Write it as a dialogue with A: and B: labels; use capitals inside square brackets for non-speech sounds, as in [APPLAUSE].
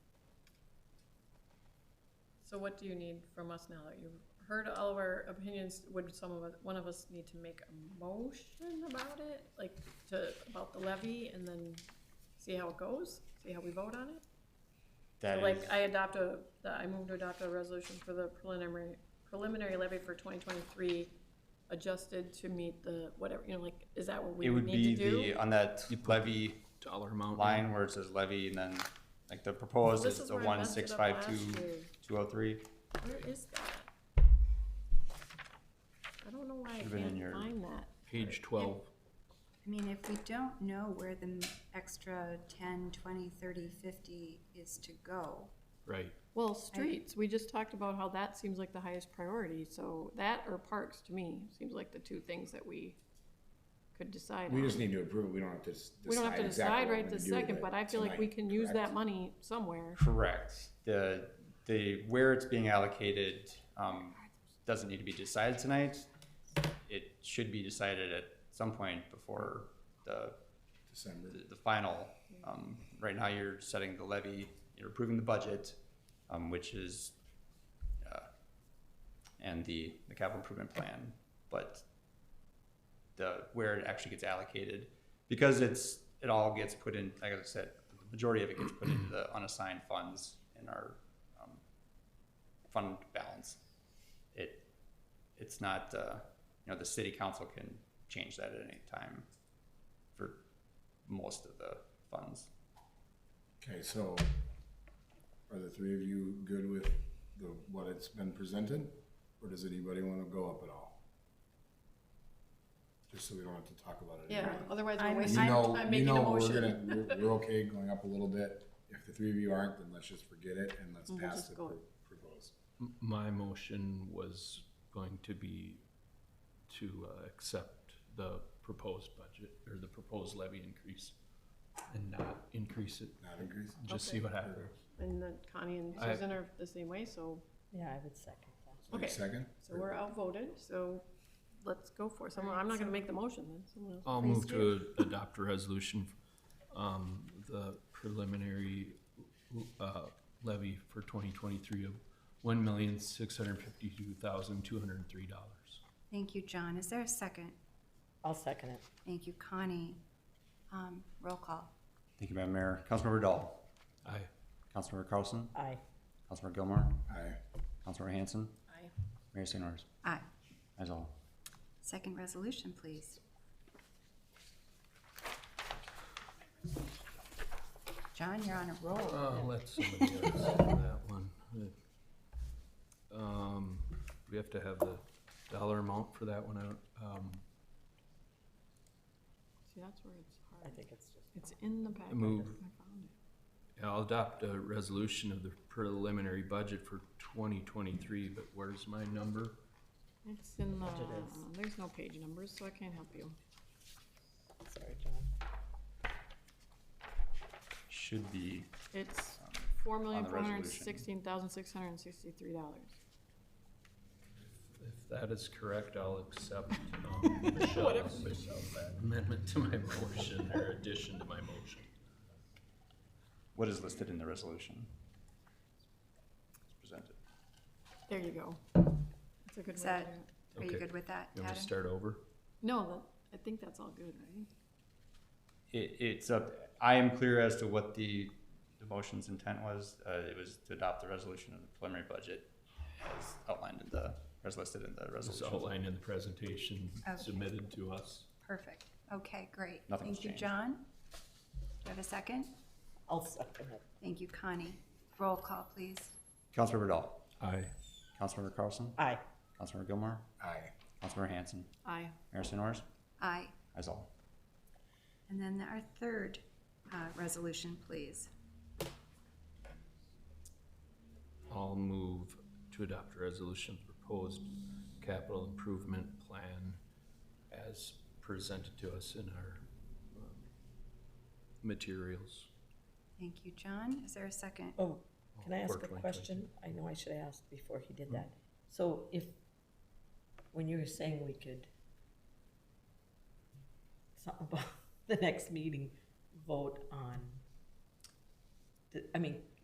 A: So what do you need from us now that you've heard all of our opinions? Would some of, us- one of us need to make a motion about it? Like to, about the levy and then see how it goes? See how we vote on it?
B: That is
A: Like I adopt a, the- I move to adopt a resolution for the preliminary, preliminary levy for twenty twenty-three adjusted to meet the whatever, you know, like, is that what we
B: it would
A: need
B: be
A: to do?
B: the on that levy
C: dollar amount.
B: line where it says levy and then like the proposed
A: This
B: is
A: is
B: the
A: where I
B: one
A: messed
B: six
A: it up
B: five
A: last
B: two
A: year.
B: two oh three.
A: Where is that? I don't know why I
B: Should've been in
A: can't
B: your-
A: find that.
C: Page twelve.
D: I mean, if we don't know where the m- extra 10, 20, 30, 50 is to go,
C: Right.
A: Well, streets, we just talked about how that seems like the highest priority, so that or parks to me seems like the two things that we could decide
E: We
A: on.
E: just need to approve it, we don't have to s-
A: We don't have to
E: decide exactly
A: decide
E: what we're
A: right
E: gonna
A: this
E: do with
A: second,
E: it
A: but I feel like we
E: tonight,
A: can use that
E: correct?
A: money somewhere.
B: Correct. The the where it's being allocated um, doesn't need to be decided tonight. It should be decided at some point before the
E: December.
B: the, the final. Um, right now, you're setting the levy, you're approving the budget, um, which is, uh, and the, the capital improvement plan, but the, where it actually gets allocated, because it's, it all gets put in, like I said, the majority of it gets put into the unassigned funds in our, um, fund balance. It, it's not, uh, you know, the city council can change that at any time for most of the funds.
E: Okay, so are the three of you good with the, what it's been presented? Or does anybody wanna go up at all? Just so we don't have to talk about it.
A: Yeah,
E: anymore.
A: otherwise we're
D: I'm-
E: You
A: wasting,
E: know,
A: I'm
E: you
A: making a
E: know, we're
A: motion.
E: gonna,
A: [LAUGHS]
E: we're, we're okay going up a little bit. If the three of you aren't, then let's just forget it and let's
A: We'll
E: pass
A: Mm-hmm. just
E: the
A: go.
E: pro- proposed.
C: My motion was going to be to uh, accept the proposed budget or the proposed levy increase and not increase it.
E: Not increase?
C: Just see what happens.
A: And then Connie and
C: I-
A: Susan are the same way, so,
F: Yeah, I would second that.
E: Wait a
A: Okay.
E: Second?
A: so we're outvoted, so let's go for it. Someone, I'm not gonna make the motion then, someone else.
C: I'll move to adopt a resolution, um, the preliminary, uh, levy for twenty twenty-three of one million, six hundred fifty-two thousand, two hundred and three dollars.
D: thank you, John. Is there a second?
F: I'll second it.
D: Thank you, Connie. Um, Roll call.
B: Thank you, Madam Mayor. Councilmember Dahl,
C: Aye.
B: Councilmember Carlson,
F: Aye.
B: Councilmember Gilmore,
E: Aye.
B: Councilmember Hanson,
A: Aye.
B: Mayor St. Orders.
D: Aye.
B: That's all.
D: Second resolution, please. John, you're on a roll.
C: Uh, let somebody else do that one. Um, we have to have the dollar amount for that one out, um,
A: See, that's where it's
F: I
A: hard.
F: think it's just.
A: It's in the packet.
C: Move.
A: I found it.
C: I'll adopt a resolution of the preliminary budget for twenty twenty-three, but where's my number?
A: It's in the,
F: Budget is.
A: there's no page numbers, so I can't help you.
F: Sorry, John.
B: Should be,
A: It's
B: um,
A: four million,
B: the
A: four hundred and
B: resolution.
A: sixteen thousand, six hundred and sixty-three dollars.
C: If that is correct, I'll accept, um, Michelle's, Michelle's amendment to my motion, or addition to my motion.
B: what is listed in the resolution? It's presented.
A: There you go. That's a good
D: Is
A: way to
D: that-
A: do it.
D: Are you
C: Okay.
D: good with that,
C: You want me to
D: Adam?
C: start over?
A: No, that, I think that's all good, right?
B: It, it's up, I am clear as to what the, the motion's intent was. Uh, it was to adopt the resolution of the preliminary budget as outlined in the, as listed in the
C: This is
B: resolution.
C: outlined in the presentation
D: Okay.
C: submitted to us.
D: Perfect. Okay, great.
B: Nothing's
D: Thank you,
B: changed.
D: John. Do you have a second?
F: I'll second it.
D: Thank you, Connie. Roll call, please.
B: Councilmember Dahl,
C: Aye.
B: Councilmember Carlson,
F: Aye.
B: Councilmember Gilmore,
E: Aye.
B: Councilmember Hanson,
A: Aye.
B: Mayor St. Orders.
D: Aye.
B: That's all.
D: And then our third uh, resolution, please.
C: I'll move to adopt a resolution of the proposed capital improvement plan as presented to us in our um, materials.
D: Thank you, John. Is there a second?
F: Oh, can I
C: For
F: ask a
C: 2022.
F: question? I know I should have asked before he did that. So if, when you were saying we could, [LAUGHS] something about the next meeting, vote on, the- I mean,